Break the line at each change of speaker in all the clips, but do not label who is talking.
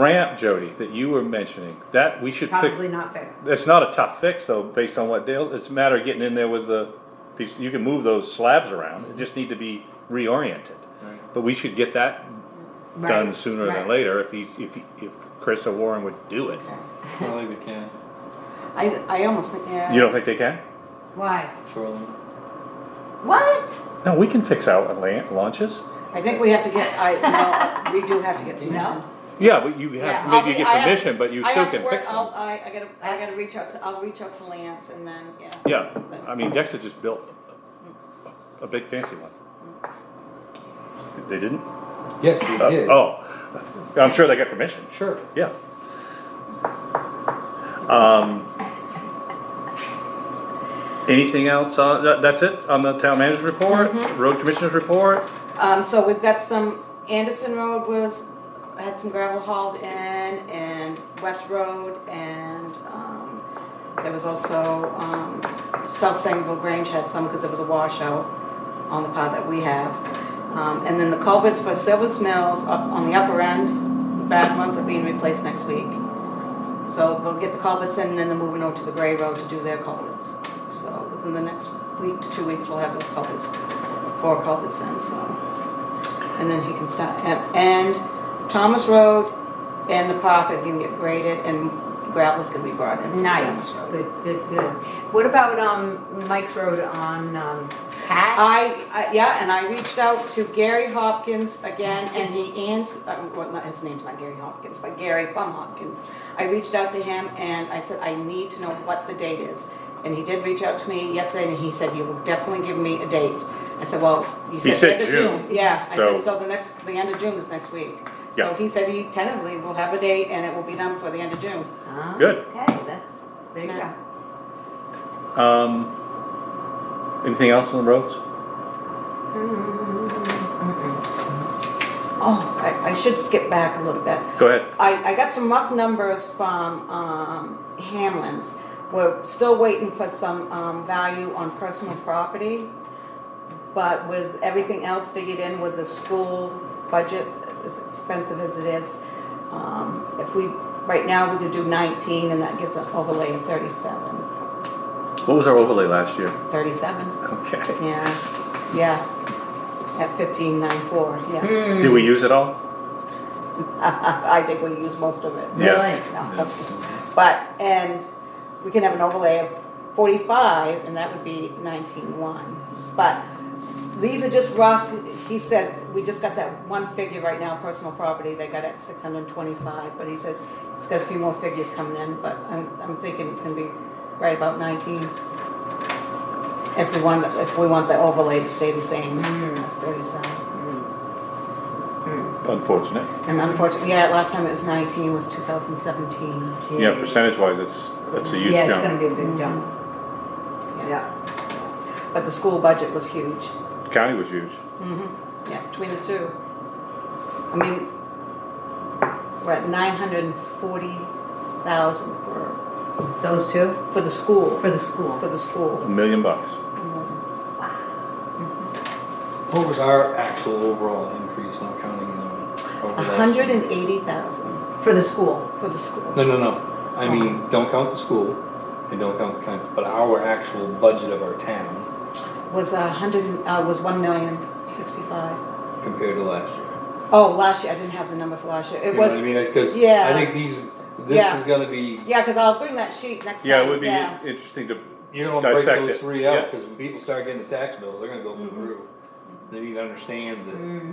ramp, Jody, that you were mentioning, that we should fix.
Probably not fixed.
It's not a tough fix though, based on what Dale, it's a matter of getting in there with the, piece- you can move those slabs around, it just need to be reoriented. But we should get that done
Right,
sooner
right.
than later if he's, if, he- if Chris or Warren would do it.
Okay.
I don't think they can,
I, I almost think, yeah.
You don't think they can?
Why?
shoreline.
What?
No, we can fix out la- launches.
I think we have to get, I, no, we do have to get
No.
permission.
Yeah, but you
Yeah,
have,
I'll
maybe you
be-
get
I have-
permission, but you
I
still
have to
can
work-
fix
I'll-
them.
I, I gotta, I gotta reach out to, I'll reach out to Lance and then, yeah.
Yeah, I mean, Dexter just built a big fancy one. They didn't?
Yes, they
Uh,
did.
Oh, I'm sure they got permission,
Sure.
yeah. Um. Anything else, on- that, that's it on the town manager's report,
Mm-hmm.
road commissioner's report?
Um, so we've got some, Anderson Road was, had some gravel hauled in, and West Road, and, um, there was also, um, South Sangerville Grange had some, because there was a washout on the part that we have. Um, and then the culverts for Silver's Mills up on the upper end, the bad ones are being replaced next week. So they'll get the culverts in, and then they're moving over to the Gray Road to do their culverts. So within the next week to two weeks, we'll have those culverts, four culverts in, so. And then he can start, and- and Thomas Road and the park are gonna get graded, and gravel's gonna be brought in. from
Nice,
Thomas Road.
good, good, good. What about, um, Mike's Road on, um, Pat?
I, I- yeah, and I reached out to Gary Hopkins again, and he ans, uh, well, not, his name's not Gary Hopkins, but Gary Plum Hopkins. I reached out to him and I said, I need to know what the date is. And he did reach out to me yesterday and he said, you will definitely give me a date. I said, well, you
He
said.
said
the end of
June.
Yeah, I
So-
said, so the next, the end of June is next week.
Yeah.
So he said he tentatively will have a date and it will be done for the end of June.
Huh?
Good.
Okay, that's, there you go.
Yeah.
Um, anything else on the roads?
Oh, I, I should skip back a little bit.
Go ahead.
I, I got some rough numbers from, um, Hamlin's. We're still waiting for some, um, value on personal property. But with everything else figured in with the school budget, as expensive as it is, um, if we, right now, we could do nineteen and that gives an overlay of thirty-seven.
What was our overlay last year?
Thirty-seven,
Okay.
yeah, yeah. At fifteen nine four, yeah.
Hmm,
Did we use it all?
I think we used most of it.
Yeah.
really?
No. But, and we can have an overlay of forty-five, and that would be nineteen-one. But these are just rough, he said, we just got that one figure right now, personal property, they got at six hundred and twenty-five, but he says it's got a few more figures coming in, but I'm, I'm thinking it's gonna be right about nineteen. If we want, if we want the overlay to stay the same, thirty-seven.
Unfortunate.
And unfortunately, yeah, last time it was nineteen, was two thousand seventeen.
Yeah, percentage wise, it's, it's a huge
Yeah, it's gonna
jump.
be a big jump, yeah.
But the school budget was huge.
County was huge.
Mm-hmm, yeah, between the two. I mean, we're at nine hundred and forty thousand for,
Those two,
for the school,
for the school.
for the
A
school.
million bucks.
What was our actual overall increase, not counting the
A
overlay?
hundred and eighty thousand
For the school.
for the school.
No, no, no. I mean, don't count the school and don't count the county, but our actual budget of our town
Was a hundred, and- uh, was one million sixty-five.
compared to last year.
Oh, last year, I didn't have the number for last year.
You
It
know what I
was,
mean? Because I
yeah.
think these, this
Yeah.
is gonna be,
yeah, cause I'll bring that sheet next time.
Yeah, it would be interesting to,
you don't wanna break
Dissect
those
it.
three
Yeah.
out, because when people start getting the tax bills, they're gonna go through the roof.
Mm-hmm.
They need to understand that,
Mm.
Hmm,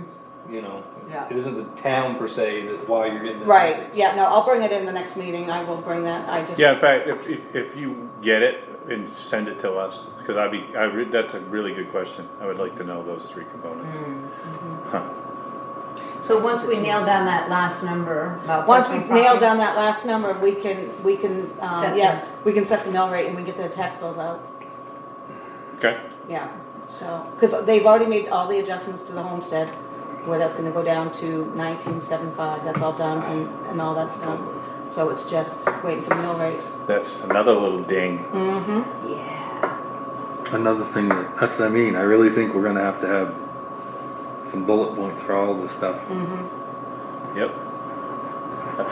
you know,
Yeah.
it isn't the town per se that why you're getting this.
Right,
increase.
yeah, no, I'll bring it in the next meeting. I will bring that. I just.
yeah, in fact, if, if, if you get it and send it to us, because I'd be, I, re- that's a really good question. I would like to know those three components.
hmm.
Huh.
So once we nail down that last number about
Once we
personal
nail
property-
down that last number, we can, we can,
Set
um,
the-
yeah, we can set the mill rate and we get the tax bills out,
Okay,
yeah. So, because they've already made all the adjustments to the homestead, where that's gonna go down to nineteen seven five, that's all done and, and all that's done. So it's just waiting for the mill rate.
that's another little ding.
Mm-hmm.
Yeah,
Another thing that, that's what I mean, I really think we're gonna have to have some bullet points for all this stuff.
Yep.